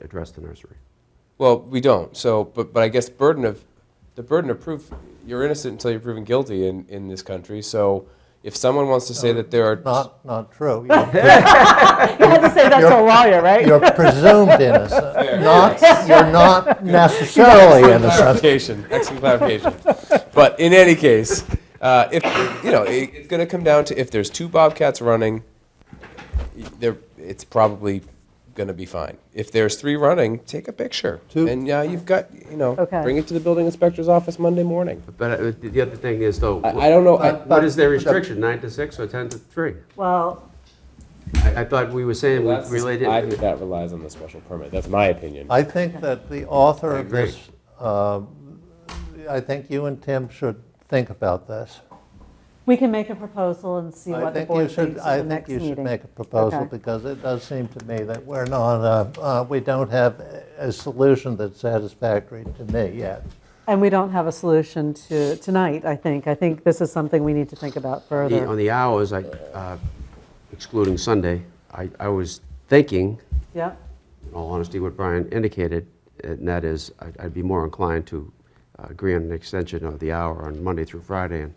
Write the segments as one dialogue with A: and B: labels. A: address the nursery.
B: Well, we don't. So, but, but I guess burden of, the burden of proof, you're innocent until you're proven guilty in, in this country. So if someone wants to say that there are,
C: Not, not true. You're-
D: You had to say that to a lawyer, right?
C: You're presumed innocent, not, you're not necessarily innocent.
B: clarification, excellent clarification. But in any case, uh, if, you know, it, it's going to come down to if there's two Bobcats running, there, it's probably going to be fine. If there's three running, take a picture.
C: Two.
B: And yeah, you've got, you know,
D: Okay.
B: bring it to the building inspector's office Monday morning.
A: But uh, the other thing is though,
B: I, I don't know. I-
A: what is their restriction, nine to six or 10 to three?
D: Well,
A: I, I thought we were saying
B: Well, that's-
A: we related.
B: I think that relies on the special permit. That's my opinion.
C: I think that the author
A: I
C: of
A: agree.
C: this, um, I think you and Tim should think about this.
D: we can make a proposal and see
C: I
D: what the
C: think you
D: board
C: should,
D: thinks
C: I
D: at the
C: think
D: next
C: you should
D: meeting.
C: make a proposal,
D: Okay.
C: because it does seem to me that we're not, uh, uh, we don't have a solution that's satisfactory to me yet.
D: And we don't have a solution to, tonight, I think. I think this is something we need to think about
A: The- On
D: further.
A: the hours, I, uh, excluding Sunday, I, I was thinking,
D: Yeah,
A: in all honesty, what Brian indicated, uh, and that is, I'd- I'd be more inclined to uh, agree on an extension of the hour on Monday through Friday and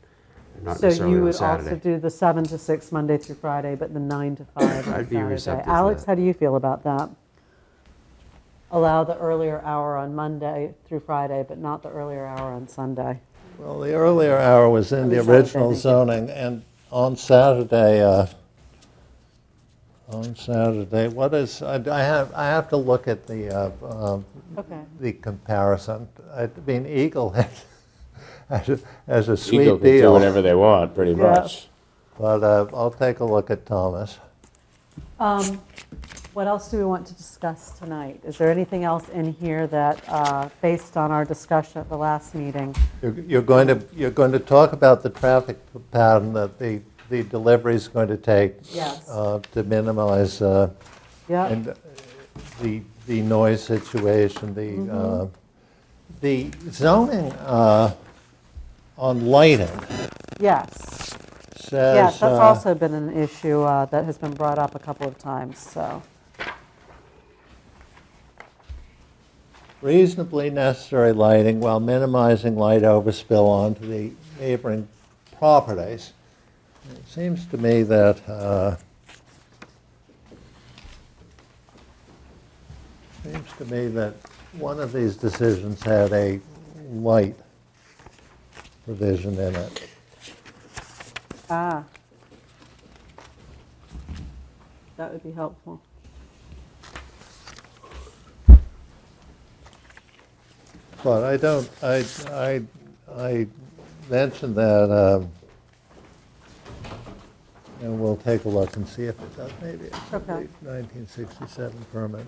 A: not
D: so
A: necessarily
D: you
A: on
D: would also
A: Saturday.
D: do the 7 to 6 Monday through Friday, but the 9 to 5 on
A: I'd be
D: Saturday.
A: receptive to
D: Alex,
A: that.
D: how do you feel about that? Allow the earlier hour on Monday through Friday, but not the earlier hour on Sunday.
C: Well, the earlier hour was in the
D: At least I was
C: original
D: thinking.
C: zoning, and on Saturday, uh, on Saturday, what is, I I have, I have to look at the, uh, um,
D: Okay.
C: the comparison. I mean, Eagle has, has a- has a
B: Eagle
C: sweet
B: can do
C: deal,
B: whatever they want, pretty
D: Yeah.
B: much.
C: but uh, I'll take a look at Thomas.
D: Um, What else do we want to discuss tonight? Is there anything else in here that, uh, based on our discussion at the last meeting?
C: You're you're going to, you're going to talk about the traffic pattern that the, the delivery's going to take
D: Yes.
C: uh, to minimize uh,
D: Yeah,
C: And uh, the, the noise situation, the,
D: Mm-hmm.
C: uh, the zoning uh, on lighting
D: yes.
C: says.
D: Yes, that's
C: uh,
D: also been an issue uh, that has been brought up a couple of times, so.
C: Reasonably necessary lighting while minimizing light overspill onto the neighboring properties. It seems to me that, uh, seems to me that one of these decisions had a light provision in it.
D: Ah. That would be helpful.
C: But I don't, I, I, I mentioned that, um, and we'll take a look and see if it does, maybe it's a
D: Okay.
C: 1967 permit.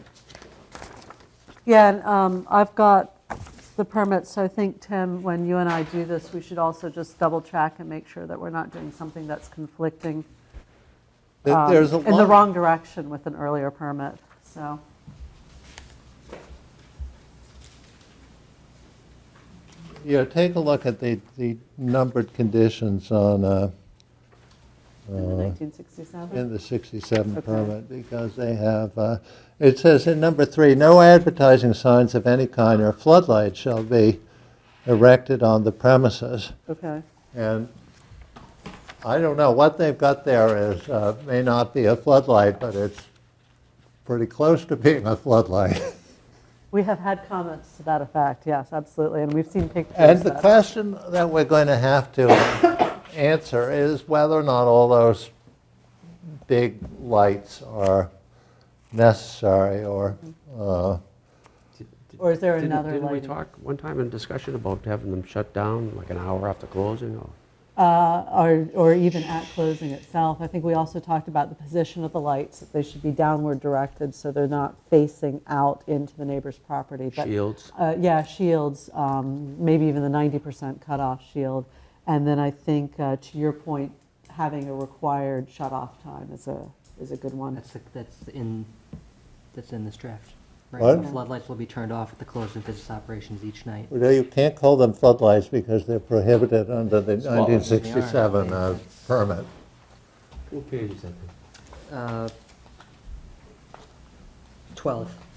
D: Yeah, and um, I've got the permits, so I think, Tim, when you and I do this, we should also just double check and make sure that we're not doing something that's conflicting
C: There-
D: um,
C: There's a
D: in the
C: lot-
D: wrong direction with an earlier permit, so.
C: Yeah, take a look at the, the numbered conditions on, uh,
D: In the
C: in
D: 1967?
C: the 67
D: Okay.
C: permit, because they have, uh, it says in number three, "No advertising signs of any kind or floodlights shall be erected on the premises."
D: Okay,
C: And I don't know, what they've got there is, uh, may not be a floodlight, but it's pretty close to being a floodlight.
D: we have had comments to that effect, yes, absolutely, and we've seen pictures.
C: And the
D: that-
C: question that we're going to have to answer is whether or not all those big lights are necessary or, uh,
D: Or is there
A: Didn't-
D: another
A: Didn't we
D: lighting?
A: talk one time in discussion about having them shut down like an hour after closing or?
D: Uh, Or or even at closing itself. I think we also talked about the position of the lights, that they should be downward directed so they're not facing out into the neighbor's property. But,
A: Shields.
D: uh, Yeah, shields, um, maybe even the 90% cutoff shield. And then I think, uh, to your point, having a required shut-off time is a, is a good one.
E: That's, the- that's in, that's in this draft. right?
C: What?
E: Floodlights will be turned off at the close of business operations each night.
C: well, you can't call them floodlights because they're prohibited under the 1967 uh, permit.
A: What page is that?
E: Uh, Twelve.